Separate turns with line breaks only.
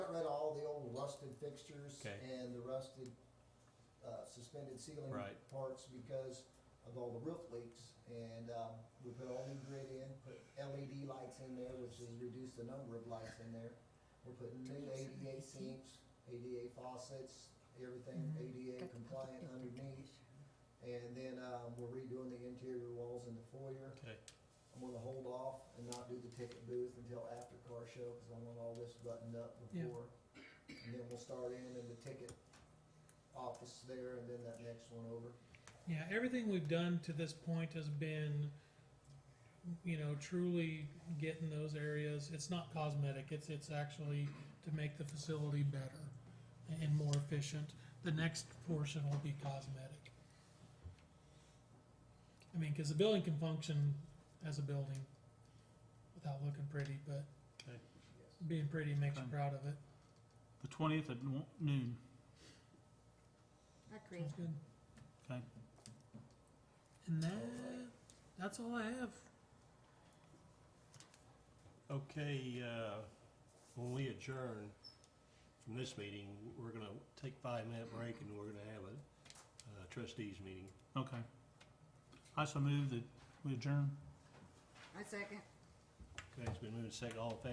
rusted fixtures
Okay.
and the rusted, uh, suspended ceiling
Right.
parts because of all the roof leaks. And, um, we put all new grid in, put LED lights in there, which has reduced the number of lights in there. We're putting new ADA sinks, ADA faucets, everything ADA compliant underneath. And then, um, we're redoing the interior walls in the foyer.
Okay,
I'm gonna hold off and not do the ticket booth until after car show, cause I want all this buttoned up
Yeah.
before. And then we'll start in in the ticket office there and then that next one over.
Yeah, everything we've done to this point has been, you know, truly getting those areas. It's not cosmetic. It's it's actually to make the facility better and more efficient. The next portion will be cosmetic. I mean, because the building can function as a building without looking pretty, but
okay.
Yes.
being pretty makes you
Okay.
proud of it.
The twentieth at no- noon,
Agreed.
Sounds good.
okay?
And that, that's all I have.
Okay, uh, when we adjourn from this meeting, we're gonna take five-minute break and we're gonna have a uh, trustees meeting.
Okay. I so move that we adjourn.
I second.
Okay, it's been moved and seconded. All in favor?